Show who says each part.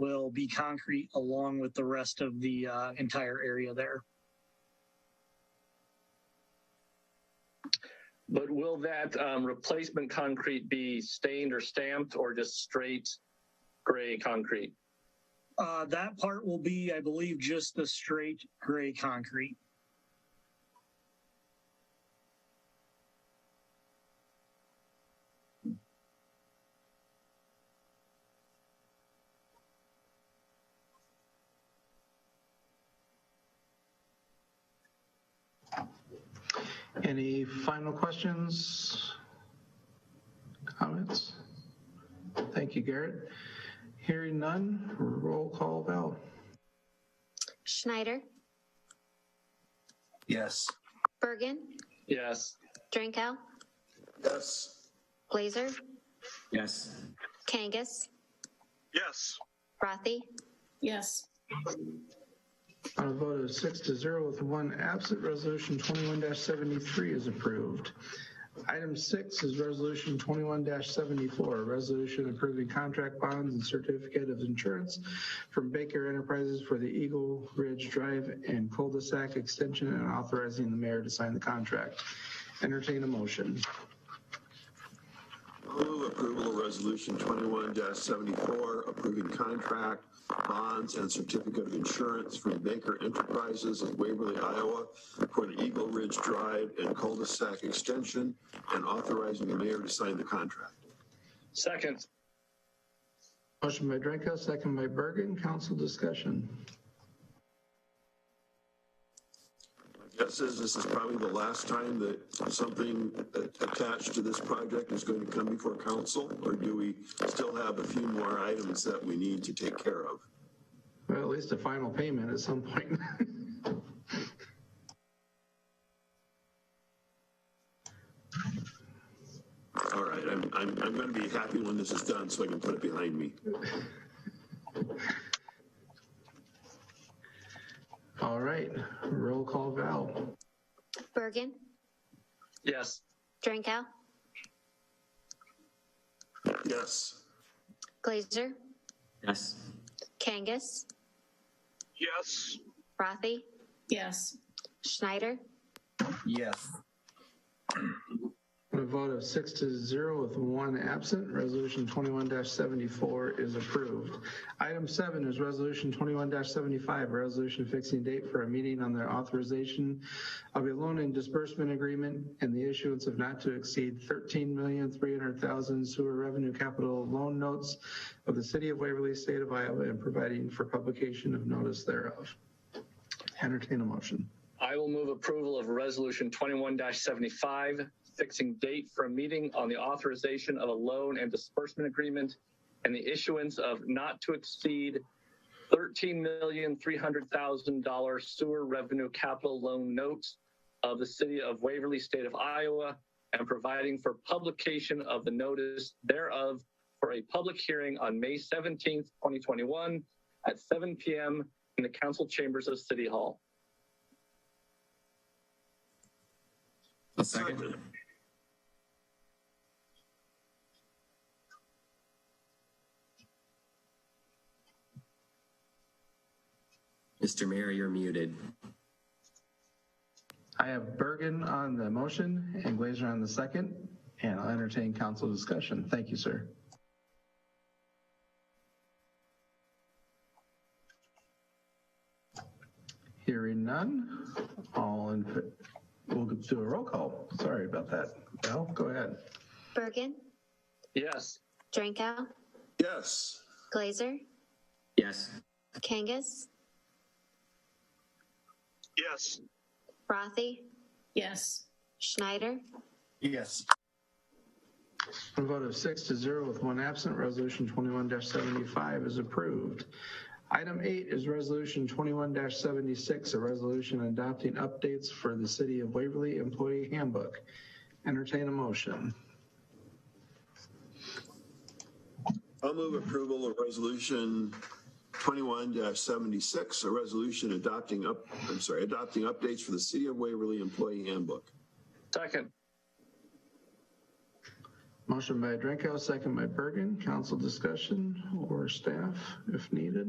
Speaker 1: will be concrete along with the rest of the uh, entire area there.
Speaker 2: But will that um, replacement concrete be stained or stamped or just straight gray concrete?
Speaker 1: Uh, that part will be, I believe, just the straight gray concrete.
Speaker 3: Any final questions? Comments? Thank you, Garrett. Hearing none, roll call, Val.
Speaker 4: Schneider,
Speaker 5: Yes.
Speaker 4: Bergen,
Speaker 2: Yes.
Speaker 4: Drinkow,
Speaker 5: Yes.
Speaker 4: Glazer,
Speaker 5: Yes.
Speaker 4: Kangas,
Speaker 6: Yes.
Speaker 4: Rothy,
Speaker 7: yes,
Speaker 3: On a vote of six to zero with one absent, resolution 21-73 is approved. Item six is resolution 21-74, resolution approving contract bonds and certificate of insurance from Baker Enterprises for the Eagle Ridge Drive and cul-de-sac extension and authorizing the mayor to sign the contract. Entertain a motion.
Speaker 8: Move approval of resolution twenty-one seventy-four, approving contract, bonds, and certificate of insurance from Baker Enterprises of Waverly, Iowa for the Eagle Ridge Drive and cul-de-sac extension and authorizing the mayor to sign the contract.
Speaker 2: Second.
Speaker 3: Motion by Drenko, second by Bergen. Council discussion.
Speaker 8: Guess is this is probably the last time that something a- attached to this project is going to come before council, or do we still have a few more items that we need to take care of?
Speaker 3: Well, at least a final payment at some point.
Speaker 8: All right, I'm, I'm, I'm going to be happy when this is done so I can put it behind me.
Speaker 3: All right, roll call Val.
Speaker 4: Bergen,
Speaker 2: Yes.
Speaker 4: Drinkow,
Speaker 8: Yes.
Speaker 4: Glazer,
Speaker 5: Yes.
Speaker 4: Kangas,
Speaker 6: Yes.
Speaker 4: Rothy,
Speaker 7: yes,
Speaker 4: Schneider,
Speaker 5: Yes.
Speaker 3: On a vote of six to zero with one absent, resolution 21-74 is approved. Item seven is resolution 21-75, a resolution fixing date for a meeting on the authorization of a loan and disbursement agreement and the issuance of not to exceed 13,300,000 sewer revenue capital loan notes of the city of Waverly, state of Iowa, and providing for publication of notice thereof. Entertain a motion.
Speaker 2: I will move approval of resolution 21 75, fixing date for a meeting on the authorization of a loan and disbursement agreement and the issuance of not to exceed $13,300,000 sewer revenue capital loan notes of the city of Waverly, state of Iowa, and providing for publication of the notice thereof for a public hearing on May 17th, 2021 at 7 p.m. in the council chambers of City Hall.
Speaker 5: A second. Mr. Mayor, you're muted.
Speaker 3: I have Bergen on the motion and Glazer on the second, and I'll entertain council discussion. Thank you, sir. Hearing none, all in, we'll do a roll call. Sorry about that. Val, go ahead.
Speaker 4: Bergen,
Speaker 2: Yes.
Speaker 4: Drinkow,
Speaker 8: Yes.
Speaker 4: Glazer,
Speaker 5: Yes.
Speaker 4: Kangas,
Speaker 6: Yes.
Speaker 4: Rothy,
Speaker 7: yes,
Speaker 4: Schneider,
Speaker 5: Yes.
Speaker 3: On a vote of six to zero with one absent, resolution 21-75 is approved. Item eight is resolution 21-76, a resolution adopting updates for the City of Waverly Employee Handbook. Entertain a motion.
Speaker 8: I'll move approval of resolution twenty-one seventy-six, a resolution adopting up, I'm sorry, adopting updates for the City of Waverly Employee Handbook.
Speaker 2: Second.
Speaker 3: Motion by Drenko, second by Bergen. Council discussion or staff if needed.